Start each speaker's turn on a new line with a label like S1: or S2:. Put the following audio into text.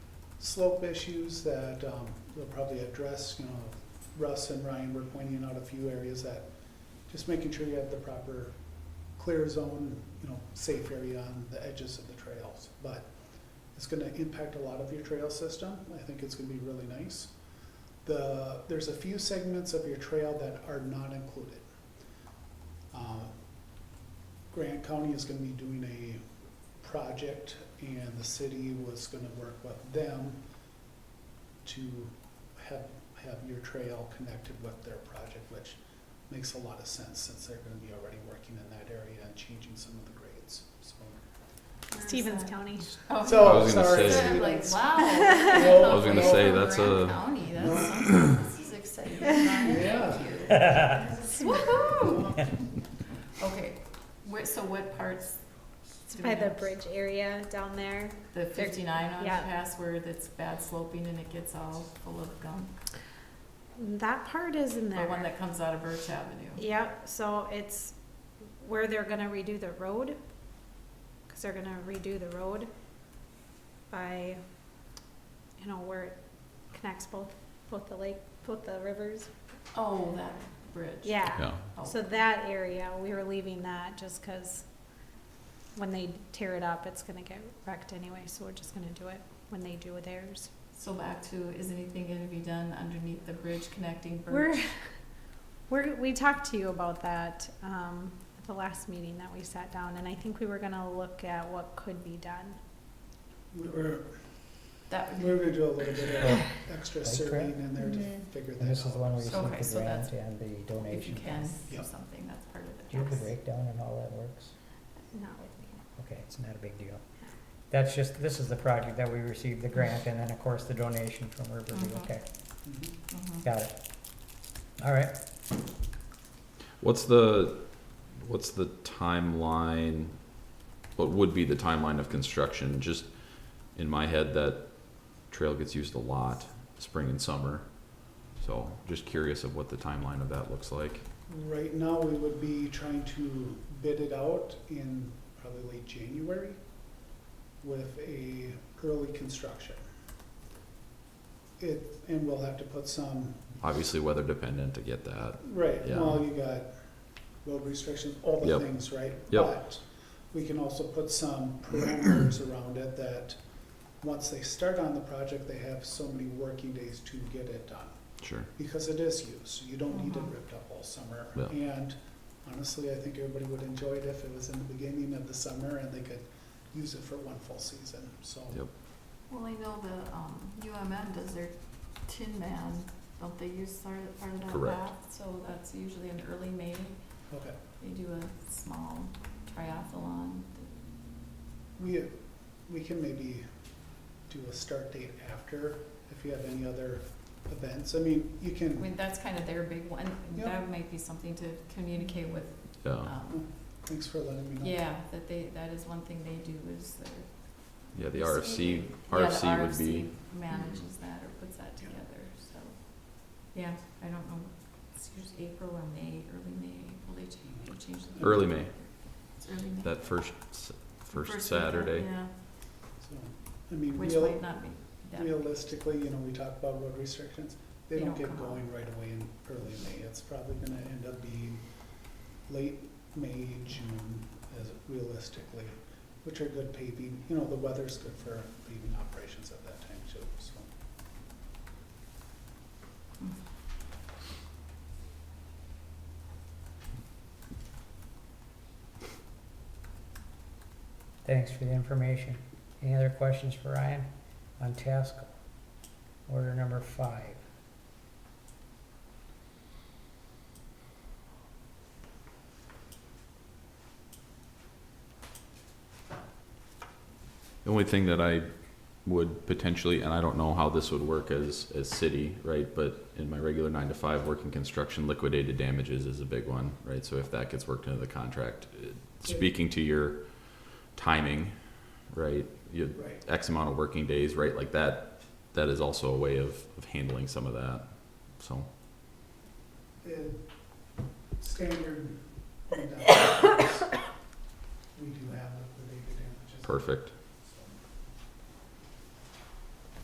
S1: slope issues that um, they'll probably address, you know, Russ and Ryan were pointing out a few areas that, just making sure you have the proper clear zone, you know, safe area on the edges of the trails. But it's gonna impact a lot of your trail system. I think it's gonna be really nice. The, there's a few segments of your trail that are not included. Uh, Grant County is gonna be doing a project and the city was gonna work with them to have, have your trail connected with their project, which makes a lot of sense since they're gonna be already working in that area and changing some of the grades, so.
S2: Stevens County.
S3: Oh,
S1: So,
S4: I was gonna
S1: sorry,
S4: say-
S3: I'm like,
S1: students.
S3: wow.
S1: I
S4: was gonna
S3: Away
S4: say,
S3: from
S4: that's
S3: Grand
S4: a-
S3: County, that's something, this is exciting.
S1: Yeah.
S3: Thank you. Woohoo! Okay, where, so what parts?
S2: It's
S3: do
S2: by
S3: we
S2: the
S3: have?
S2: bridge area down there.
S3: The fifty-nine on the
S2: yeah.
S3: pass where it's bad sloping and it gets all full of gunk,
S2: That part is in
S3: the
S2: there.
S3: one that comes out of Birch Avenue.
S2: Yep, so it's where they're gonna redo the road, cause they're gonna redo the road by, you know, where it connects both, both the lake, both the rivers.
S3: Oh, that bridge.
S2: Yeah,
S4: Yeah,
S3: Oh.
S2: so that area, we were leaving that just cause when they tear it up, it's gonna get wrecked anyway, so we're just gonna do it when they do theirs.
S3: So back to, is anything gonna be done underneath the bridge connecting
S2: We're,
S3: Birch?
S2: we're, we talked to you about that, um, at the last meeting that we sat down, and I think we were gonna look at what could be done.
S1: We We're,
S3: That would
S1: we're gonna do a little bit of extra
S5: Bike
S1: surveying
S5: track?
S1: in there to
S3: Mhm.
S1: figure
S5: And
S1: that
S5: this is the
S1: out.
S5: one where you
S3: Okay,
S5: see
S3: so
S5: the grant
S3: that's-
S5: and the
S3: be, if you
S5: donation.
S3: can,
S1: Yeah.
S3: or something, that's part of it.
S5: Do you have the
S3: Yes.
S5: breakdown and all that works?
S2: Not with
S5: Okay, it's not a big deal. That's just, this is the project that we received, the grant, and then of course the donation from Riverview,
S3: Mhm.
S5: okay,
S1: Mhm.
S3: Mhm.
S5: got it. All right,
S4: what's the, what's the timeline? What would be the timeline of construction? Just in my head, that trail gets used a lot, spring and summer. So just curious of what the timeline of that looks like.
S1: Right now, we would be trying to bid it out in probably late January with a early construction. It, and we'll have to put some,
S4: Obviously weather dependent to get that.
S1: right,
S4: Yeah.
S1: well, you got road restrictions, all the
S4: Yep.
S1: things, right?
S4: Yep.
S1: But we can also put some parameters around it that, once they start on the project, they have so many working days to get it done.
S4: Sure.
S1: because it is used. You don't need it
S3: Mhm.
S1: ripped up all summer.
S4: Yeah.
S1: And honestly, I think everybody would enjoy it if it was in the beginning of the summer and they could use it for one full season, so.
S4: Yep.
S3: Well, I know the, um, UMM does their Tin Man, don't they use part of, part of that
S4: Correct.
S3: path? So that's usually in early May,
S1: Okay,
S3: they do a small triathlon.
S1: we, we can maybe do a start date after if you have any other events. I mean, you
S3: I
S1: can,
S3: mean, that's kind of their big one,
S1: Yeah.
S3: that might be something to communicate with,
S4: Yeah.
S3: um,
S1: thanks for letting me know.
S3: yeah, that they, that is one thing they do is their.
S4: Yeah, the
S3: So-
S4: RFC,
S3: Yeah, the
S4: RFC would be,
S3: RFC manages that or puts that together, so, yeah, I don't know, it's usually April or May, early May, will they change, they change the.
S4: Early May.
S3: It's early May.
S4: that first, s- first
S3: week,
S4: Saturday.
S3: Yeah,
S1: So, I mean,
S3: which
S1: real,
S3: might not be that.
S1: realistically, you know, we talk about road restrictions. They
S3: They
S1: don't
S3: don't
S1: get
S3: come out.
S1: going right away in early May. It's probably gonna end up being late May, June, as realistically, which are good paving, you know, the weather's good for paving operations at that time too, so.
S5: thanks for the information. Any other questions for Ryan on task order number five?
S4: The only thing that I would potentially, and I don't know how this would work as, as city, right? But in my regular nine to five, working construction, liquidated damages is a big one, right? So if that gets worked into the contract, it- speaking to your timing, right? You,
S1: Right.
S4: X amount of working days, right? Like that, that is also a way of, of handling some of that. So,
S1: And standard, and, uh, we do have liquidated damages.
S4: perfect.